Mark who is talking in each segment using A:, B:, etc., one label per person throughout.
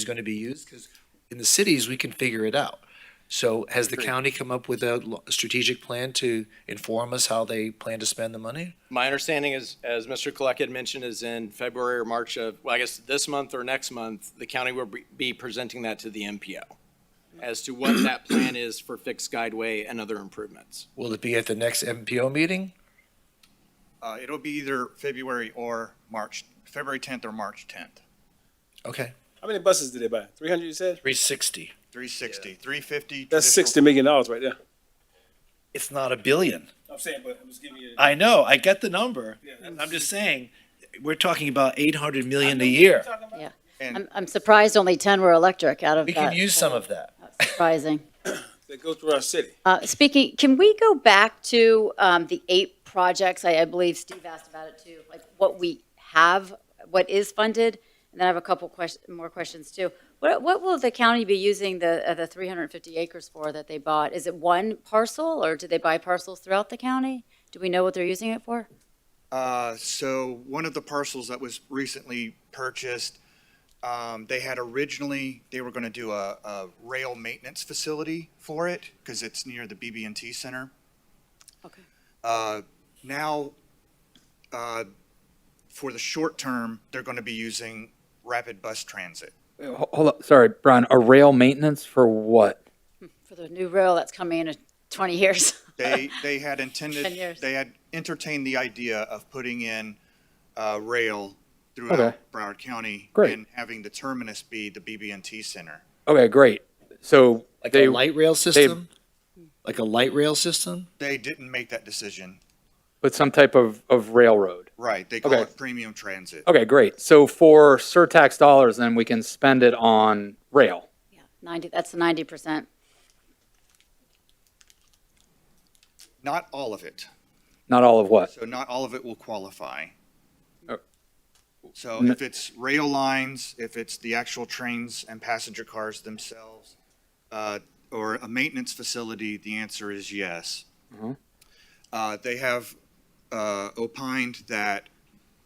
A: is going to be used, because in the cities, we can figure it out. So has the county come up with a lo- strategic plan to inform us how they plan to spend the money?
B: My understanding is, as Mr. Colleck had mentioned, is in February or March of, well, I guess this month or next month, the county will be- be presenting that to the MPO as to what that plan is for fixed guideway and other improvements.
A: Will it be at the next MPO meeting?
C: Uh, it'll be either February or March, February tenth or March tenth.
A: Okay.
D: How many buses did they buy? Three hundred, you said?
A: Three sixty.
C: Three sixty, three fifty.
D: That's sixty million dollars right there.
A: It's not a billion.
D: I'm saying, but I'm just giving you.
A: I know, I get the number.
D: Yeah.
A: I'm just saying, we're talking about eight hundred million a year.
E: I'm, I'm surprised only 10 were electric out of
A: We
E: that.
A: can use some of that.
E: Surprising.
D: That goes through our city.
E: Uh, Speaking, can we go back to um, the eight projects? I, I believe Steve asked about it too, like what we have, what is funded? And then I have a couple questions, more questions too. What, what will the county be using the, uh, the 350 acres for that they bought? Is it one parcel or did they buy parcels throughout the county? Do we know what they're using it for?
C: Uh, so one of the parcels that was recently purchased, um, they had originally, they were gonna do a, a rail maintenance facility for it, cause it's near the BB&T Center.
E: Okay.
C: Uh, Now, uh, for the short term, they're gonna be using rapid bus transit.
F: Ho- Hold up, sorry, Brian, a rail maintenance for what?
E: For the new rail that's coming in in 20 years?
C: They, they had
E: Ten years.
C: intended, they had entertained the idea of putting in uh, rail
F: Okay.
C: throughout Broward County.
F: Great.
C: And having the terminus be the BB&T Center.
F: Okay, great. So
A: Like
F: they,
A: a light rail system? Like a light rail system?
C: They didn't make that decision.
F: but some type of, of railroad.
C: Right, they call
F: Okay. Oh.
C: it premium transit.
F: Okay, great. So for surtax dollars, then we can spend it on rail.
E: 90, that's the 90%.
C: Not all of it.
F: Not all of what?
C: So not all of it will qualify.
F: Oh.
C: So
F: N-
C: if it's rail lines, if it's the actual trains and passenger cars themselves, uh, or a maintenance facility, the answer is yes.
F: Mhm.
C: Uh, They have uh, opined that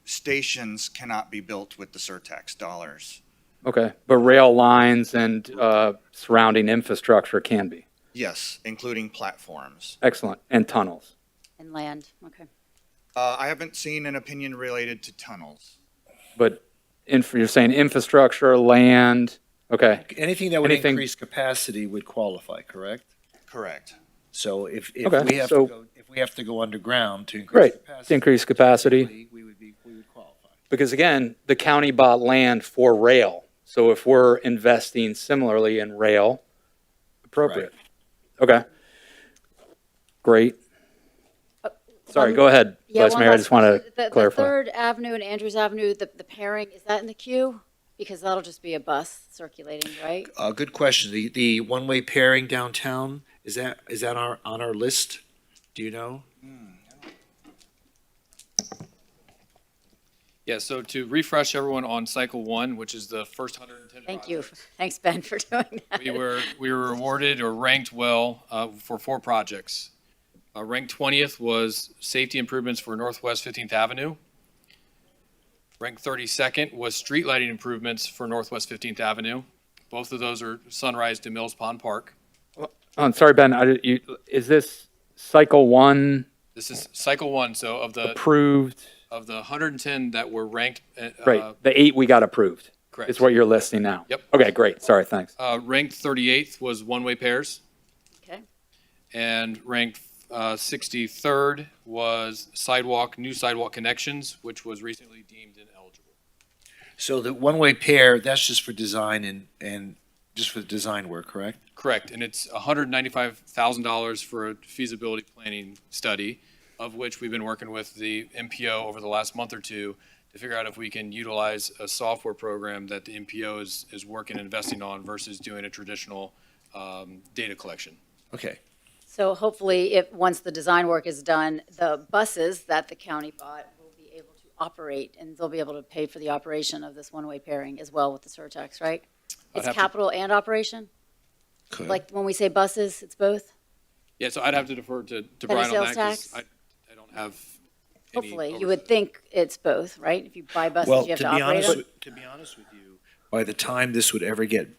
C: stations cannot be built with the surtax dollars.
F: Okay, but rail lines and uh, surrounding infrastructure can be.
C: Yes, including platforms.
F: Excellent. And tunnels.
E: And land, okay.
C: Uh, I haven't seen an opinion related to tunnels.
F: But inf- you're saying infrastructure, land. Okay,
A: Anything that would
F: Anything-
A: increase capacity would qualify, correct?
C: Correct.
A: So if, if
F: Okay,
A: we have to
F: so-
A: go, if we have to go underground to increase
F: Right,
A: capacity.
F: to increase capacity.
A: We would be, we would qualify.
F: Because again, the county bought land for rail. So if we're investing similarly in rail, appropriate. Okay. Great. Sorry,
E: Uh, one-
F: go ahead,
E: Yeah,
F: Vice
E: one
F: Mayor. I
E: last
F: just want
E: question. The-
F: to clarify.
E: The Third Avenue and Andrews Avenue, the, the pairing, is that in the queue? Because that'll just be a bus circulating, right?
A: Uh, good question. The, the one-way pairing downtown, is that, is that our, on our list? Do you know?
G: Yeah, so to refresh everyone on cycle one, which is the first 110
E: Thank you.
G: projects,
E: Thanks, Ben, for doing that.
G: We were, we were awarded or ranked well uh, for four projects. Uh, Ranked 20th was safety improvements for Northwest 15th Avenue. Ranked 32nd was street lighting improvements for Northwest 15th Avenue. Both of those are Sunrise to Mills Pond Park.
F: Oh, I'm sorry, Ben, I, did- you, is this cycle one
G: This is cycle one, so of
E: Uh,
G: the,
F: approved?
G: of the 110 that were ranked. uh,
F: Right, the eight we got approved
G: Correct.
F: is what you're listing now.
G: Yep.
F: Okay, great. Sorry, thanks.
G: Uh, Ranked 38th was one-way pairs.
E: Okay.
G: And ranked uh, 63rd was sidewalk, new sidewalk connections, which was recently deemed ineligible.
A: So the one-way pair, that's just for design and, and just for design work, correct?
G: Correct, and it's $195,000 for a feasibility planning study, of which we've been working with the MPO over the last month or two to figure out if we can utilize a software program that the MPO is, is working and investing on versus doing a traditional um, data collection.
A: Okay.
E: So hopefully, if, once the design work is done, the buses that the county bought will be able to operate, and they'll be able to pay for the operation of this one-way pairing as well with the surtax, right?
G: I'd
E: It's
G: have to-
E: capital and operation? Like, when we say buses, it's both?
G: Yeah, so I'd have to defer to to
E: Better
G: Brian on that,
E: sales
G: 'cause
E: tax?
G: I, I don't have any
E: Hopefully, you
G: oversight.
E: would think it's both, right? If you buy buses,
A: Well,
E: you have
A: to
E: to
A: be
E: operate
A: honest,
E: them.
A: with- to be honest with you, by the time this would ever get